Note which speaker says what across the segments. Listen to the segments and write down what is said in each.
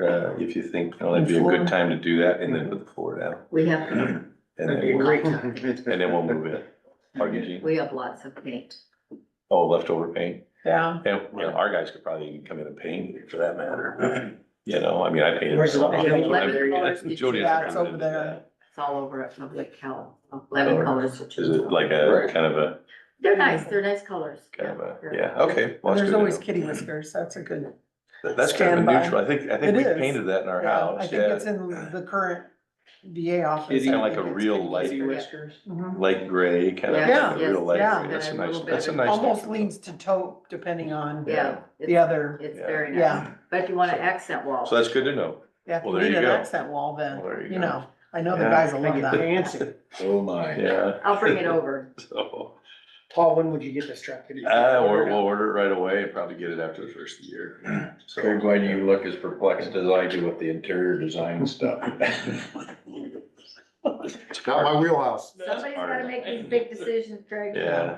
Speaker 1: uh, if you think, you know, that'd be a good time to do that and then put the floor down.
Speaker 2: We have,
Speaker 1: And
Speaker 3: That'd be
Speaker 1: then,
Speaker 3: a
Speaker 1: we'll-
Speaker 3: great time.
Speaker 1: and then we'll move it. RGG,
Speaker 2: we have lots of paint.
Speaker 1: oh, leftover paint.
Speaker 3: Yeah.
Speaker 1: And, you know, our guys could probably come in and paint for that matter. You know, I mean, I painted.
Speaker 3: Where's the-
Speaker 1: Jody- Jody
Speaker 3: Yeah, it's
Speaker 1: hasn't
Speaker 3: over
Speaker 1: been to
Speaker 3: there.
Speaker 1: that.
Speaker 2: It's all over at Public Health, eleven
Speaker 1: Or
Speaker 2: colors.
Speaker 1: Is it like a,
Speaker 3: Right.
Speaker 1: kind of a,
Speaker 2: They're nice, they're nice colors.
Speaker 1: kind of a,
Speaker 2: they're-
Speaker 1: yeah, okay. well, that's good
Speaker 3: And there's
Speaker 1: to
Speaker 3: always
Speaker 1: know.
Speaker 3: kitty whiskers. That's a good.
Speaker 1: That- That's kind of a
Speaker 3: Standby.
Speaker 1: neutral, I think, I
Speaker 3: It
Speaker 1: think we
Speaker 3: is.
Speaker 1: painted that in our
Speaker 3: Yeah,
Speaker 1: house,
Speaker 3: I think
Speaker 1: yeah.
Speaker 3: it's in the current VA office.
Speaker 1: It's kinda
Speaker 3: I
Speaker 1: like
Speaker 3: think
Speaker 1: a
Speaker 3: it's
Speaker 1: real
Speaker 3: kitty
Speaker 1: light-
Speaker 3: whisker.
Speaker 2: whiskers.
Speaker 3: Mhm.
Speaker 1: Light gray, kind of,
Speaker 2: Yeah,
Speaker 1: like a
Speaker 2: yes,
Speaker 1: real light
Speaker 3: yeah.
Speaker 1: gray, that's a
Speaker 2: And a
Speaker 1: nice,
Speaker 2: little
Speaker 1: that's a
Speaker 2: bit
Speaker 1: nice.
Speaker 3: Almost
Speaker 1: touch.
Speaker 3: leans to taupe depending on
Speaker 2: Yeah,
Speaker 3: the
Speaker 2: it's,
Speaker 3: other,
Speaker 2: it's
Speaker 1: Yeah.
Speaker 2: very nice,
Speaker 3: yeah.
Speaker 2: but if you want an accent wall.
Speaker 1: So that's good to know.
Speaker 3: Yeah, if
Speaker 1: Well,
Speaker 3: you
Speaker 1: there
Speaker 3: need
Speaker 1: you go.
Speaker 3: an accent wall then,
Speaker 1: Well, there you
Speaker 3: you
Speaker 1: go.
Speaker 3: know, I know the
Speaker 1: Yeah.
Speaker 3: guys will love
Speaker 4: Make it
Speaker 3: that.
Speaker 4: fancy.
Speaker 5: Oh, my.
Speaker 1: Yeah,
Speaker 2: I'll bring it over.
Speaker 1: so,
Speaker 4: Paul, when would you get this truck? Could you-
Speaker 1: uh, we're- we'll order it right away and probably get it after the first of the year. So-
Speaker 5: Very glad you look as perplexed as I do with the interior design stuff.
Speaker 1: It's
Speaker 4: Not
Speaker 1: hard.
Speaker 4: my wheelhouse.
Speaker 2: Somebody's gotta
Speaker 1: hard.
Speaker 2: make these big decisions, Greg.
Speaker 1: Yeah,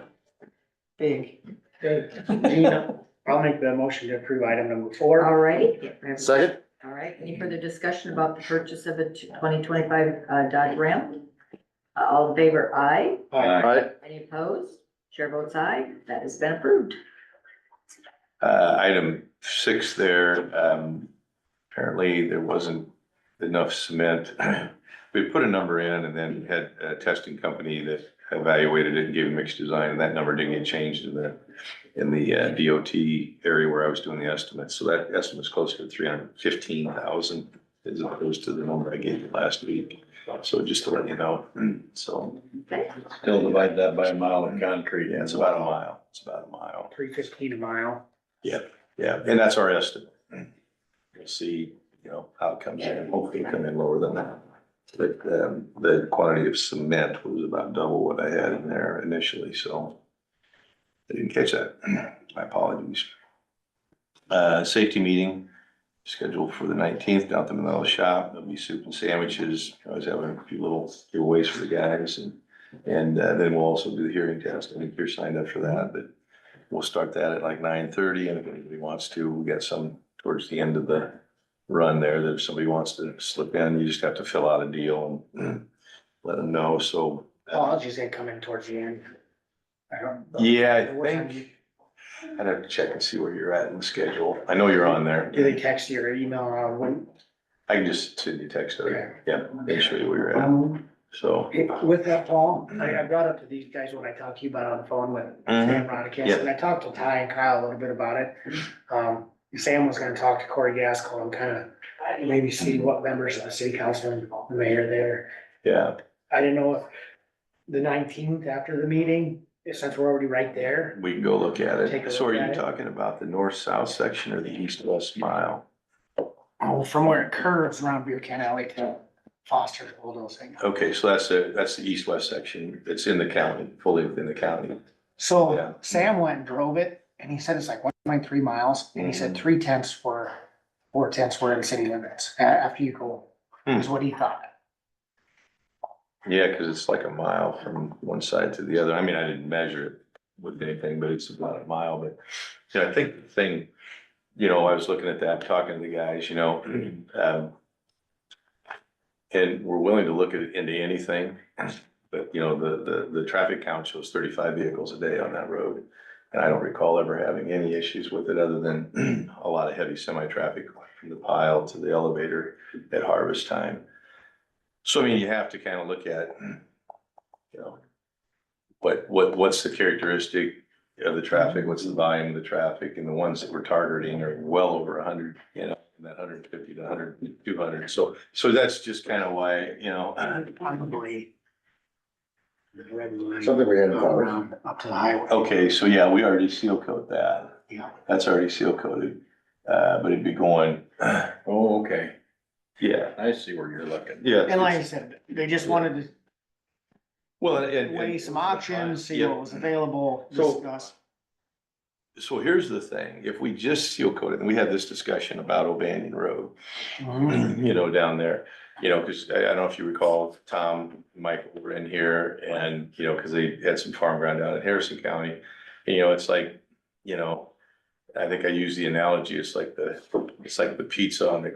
Speaker 3: Big.
Speaker 4: Okay, Gina, I'll make the motion to approve item number
Speaker 2: All
Speaker 4: four.
Speaker 2: right.
Speaker 4: Second?
Speaker 2: All right, any further discussion about the purchase of a twenty twenty-five Dodge Ram? Uh, All in favor, aye.
Speaker 5: Aye.
Speaker 2: Any opposed? Chair votes aye. That has been approved.
Speaker 1: uh, item six there, um, apparently there wasn't enough cement. We put a number in and then had a testing company that evaluated it and gave a mixed design, and that number didn't get changed in the, in the uh, DOT area where I was doing the estimate, so that estimate's closer to three hundred and fifteen thousand as opposed to the number I gave you last week, so just to let you know, so,
Speaker 2: Okay,
Speaker 5: Still divide that by a mile of concrete.
Speaker 1: yeah, it's about a mile, it's about a mile.
Speaker 4: Three fifteen a mile.
Speaker 1: Yeah, and that's our estimate. We'll see, you know, how it comes in, hopefully it'll come in lower than that. But, um, the quantity of cement was about double what I had in there initially, so. I didn't catch that, my apologies. Uh, safety meeting scheduled for the nineteenth down at the Manila shop, there'll be soup and sandwiches, I was having a few little giveaways for the guys and. And uh, then we'll also do the hearing test, I think you're signed up for that, but We'll start that at like nine thirty, and if anybody wants to, we got some towards the end of the run there, that if somebody wants to slip in, you just have to fill out a deal and let them know, so. uh,
Speaker 4: Paul, I'll just say come in towards the end. I don't. know.
Speaker 1: Yeah, I
Speaker 4: What time
Speaker 1: think, I'd have to check and see where you're at in the schedule, I know you're on there,
Speaker 4: Do they text you or email or when?
Speaker 1: I can just send you a text,
Speaker 4: Okay.
Speaker 1: or, yeah, make sure where you're at,
Speaker 4: Um,
Speaker 1: so.
Speaker 4: it- With that, Paul, I, I brought up to these guys when I talked to you about on the phone with
Speaker 1: Mm-hmm.
Speaker 4: Sam Rodakis,
Speaker 1: Yep.
Speaker 4: and I talked to Ty and Kyle a little bit about it. Um, Sam was gonna talk to Corey Gaskell and kind of maybe see what members of the city council and the mayor there.
Speaker 1: Yeah,
Speaker 4: I didn't know if the nineteenth after the meeting, since we're already right there,
Speaker 1: we can go look at
Speaker 4: Take a
Speaker 1: it, so are
Speaker 4: look at
Speaker 1: you
Speaker 4: it.
Speaker 1: talking about the north-south section or the east-west mile?
Speaker 4: oh, from where it curves around Beer Can Alley to Foster's old those things.
Speaker 1: Okay, so that's the, that's the east-west section, it's in the county, fully within the county. Yeah.
Speaker 4: So Sam went and drove it and he said it's like one point three miles and he said
Speaker 1: Mhm.
Speaker 4: three tenths were, four tenths were in city limits a- after you go, is what he thought.
Speaker 1: Yeah, because it's like a mile from one side to the other. I mean, I didn't measure it with anything, but it's about a mile, but, you know, I think the thing, you know, I was looking at that, talking to the guys, you know, um, and we're willing to look at into anything, but, you know, the, the, the traffic count shows thirty-five vehicles a day on that road. And I don't recall ever having any issues with it other than a lot of heavy semi-traffic from the pile to the elevator at harvest time. So I mean, you have to kind of look at, you know, what, what, what's the characteristic of the traffic? What's the volume of the traffic? And the ones that we're targeting are well over a hundred, you know, in that hundred fifty to hundred, two hundred. So, so that's just kind of why, you know,
Speaker 4: Probably. The red line.
Speaker 5: Something we had about.
Speaker 4: Around up to the highway.
Speaker 1: okay, so yeah, we already seal coat that.
Speaker 4: Yeah.
Speaker 1: That's already seal coated, uh, but it'd be going,
Speaker 5: Oh, okay.
Speaker 1: yeah,
Speaker 5: I see where you're looking.
Speaker 4: And like I
Speaker 1: yeah.
Speaker 4: said, they just wanted
Speaker 1: Well,
Speaker 4: to
Speaker 1: and.
Speaker 4: weigh some options, see what was available,
Speaker 1: So-
Speaker 4: discuss.
Speaker 1: So here's the thing, if we just seal coated, and we had this discussion about O'Banion Road.
Speaker 4: Mhm.
Speaker 1: you know, down there, you know, because I, I don't know if you recall, Tom, and Mike were in here and, you know, because they had some farm ground down in Harrison County. And, you know, it's like, you know, I think I use the analogy, it's like the, it's like the pizza on the